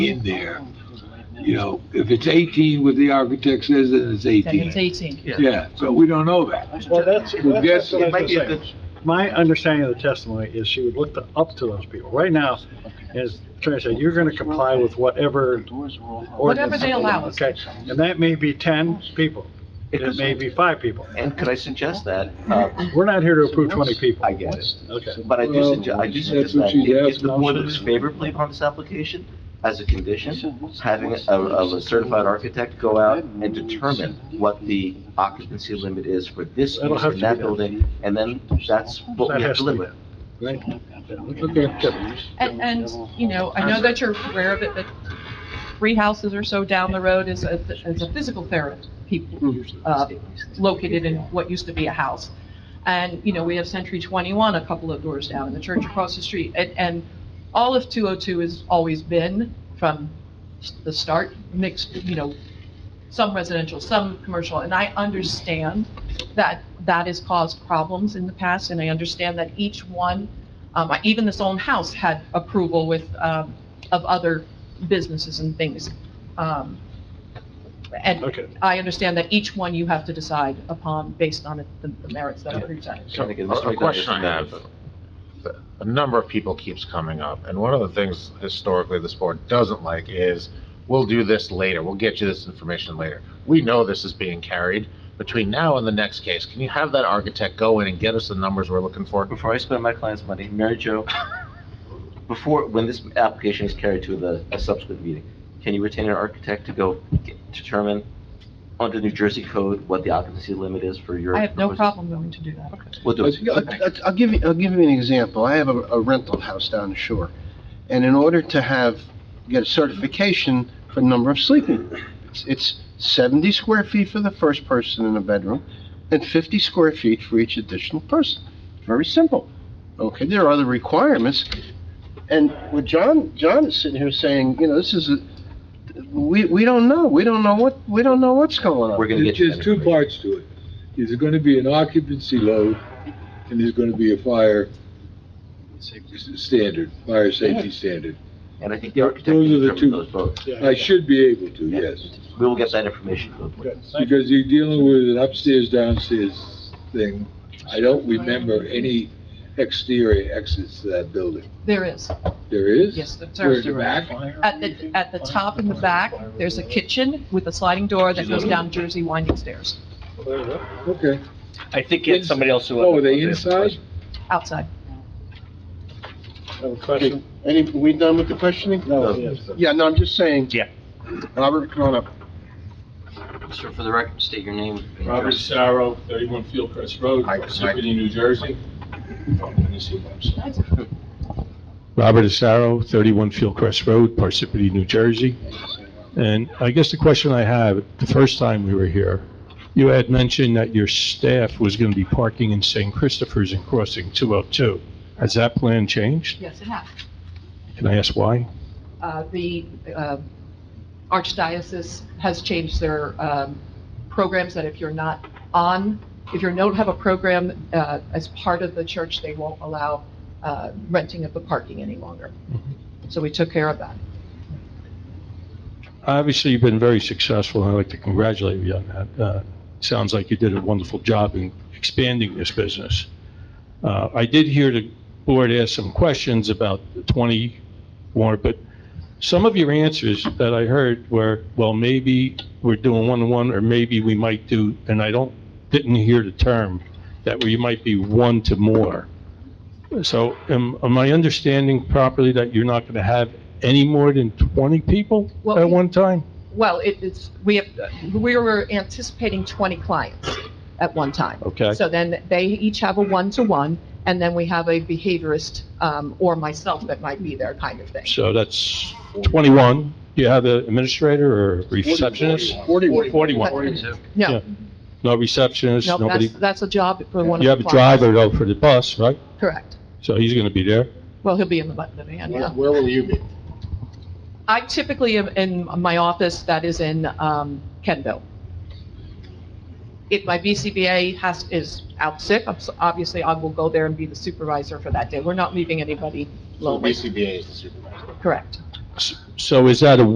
in there. You know, if it's 18, what the architect says, then it's Then it's 18. 18. Yeah, so we don't know that. Well, that's, that's what I was It gonna might be say. My understanding of the testimony is she would look to- up to those people. Right now, as Attorney said, you're gonna comply with whatever Whatever ordinance. they allow us. Okay, and that may be ten people, it may be five people. And could I suggest that, uh, We're not here to approve twenty people. I get it, Okay. but I do suggest, I do suggest that if the board looks favorably upon this application, as a condition, having a, of a certified architect go out and determine what the occupancy limit is for this That'll use have in to be that done. building, and then that's what That we have has to to be live with. And, and, you know, I know that you're aware of it, but three houses or so down the road is a, is a physical therapy, uh, located in what used to be a house. And, you know, we have Century 21 a couple of doors down and the church across the street. And, and all of 202 has always been from s- the start mixed, you know, some residential, some commercial. And I understand that that has caused problems in the past and I understand that each one, um, even this own house had approval with, um, of other businesses and things. Um, And Okay, I understand that each one you have to decide upon based on the the merits that are presented. So, Trying to get Mr. a- a McDonough question to- I have. A number of people keeps coming up, and one of the things historically this board doesn't like is, we'll do this later, we'll get you this information later. We know this is being carried. Between now and the next case, can you have that architect go in and get us the numbers we're looking for? Before I spend my client's money, Mary Jo, before, when this application is carried to the, a subsequent meeting, can you retain an architect to go get- determine under New Jersey code what the occupancy limit is for your? I have no proposed- problem going to do that. We'll do I'll- it. I'll I'll give you, I'll give you an example. I have a a rental house down the shore, and in order to have, get a certification for number of sleeping, it's- it's 70 square feet for the first person in a bedroom, and 50 square feet for each additional person. Very simple. Okay, there are other requirements, and with John, John is sitting here saying, you know, this is, a we, we don't know, we don't know what, we don't know what's going on. We're gonna There's get you that just two information. parts to it. There's gonna be an occupancy load, and there's gonna be a fire s- standard, fire safety standard. And I think the architect Those are can the determine two. those both. I should be able to, yes. We will get that information. to the board. Because you're dealing with an upstairs, downstairs thing. I don't remember any exterior exits to that building. There is, There is? yes, the Where in serves the back? At the, at the top in the back, there's a kitchen with a sliding door that goes down Jersey winding stairs, Okay. I think it's somebody else who. Oh, are they inside? outside. have a question? Any, we done with the questioning? No, yes. Yeah, no, I'm just saying. Yeah. Robert, come on up. Sir, for the record, state your name. and Robert address. Sarro, 31 Fieldcrest Road, Hi, hi. Parsippany, New Jersey. Oh, let me see what I'm saying. Robert Asaro, 31 Fieldcrest Road, Parsippany, New Jersey. And I guess the question I have, the first time we were here, you had mentioned that your staff was going to be parking in St. Christopher's and crossing 202. Has that plan changed? Yes, it has. Can I ask why? Uh, The uh, Archdiocese has changed their um, programs that if you're not on, if you don't have a program uh, as part of the church, they won't allow uh, renting of the parking any longer. So we took care of that. Obviously, you've been very successful, and I'd like to congratulate you on that. Uh, Sounds like you did a wonderful job in expanding this business. Uh, I did hear the board ask some questions about the 20 warrant, but some of your answers that I heard were, well, maybe we're doing one-to-one, or maybe we might do, and I don't, didn't hear the term, that we might be one to more. So am am I understanding properly that you're not going to have any more than 20 people Well, at one time? Well, it- it's, we have, we were anticipating 20 clients at one time. Okay. So then they each have a one-to-one, and then we have a behaviorist um, or myself that might be there kind of thing. So that's 21. Do you have an administrator or receptionist? 41. 41. yeah. No, No receptionist, no, nobody. that's, that's a job for one of the clients. You have a driver though for the bus, right? Correct. So he's going to be there. Well, he'll be in the bu- the van, yeah. Where will you be? I typically am in my office that is in um, Kenville. If my BCBA has, is out sick, I'm s- obviously I will go there and be the supervisor for that day. We're not leaving anybody lonely. BCBA is the supervisor. Correct. S- So is that a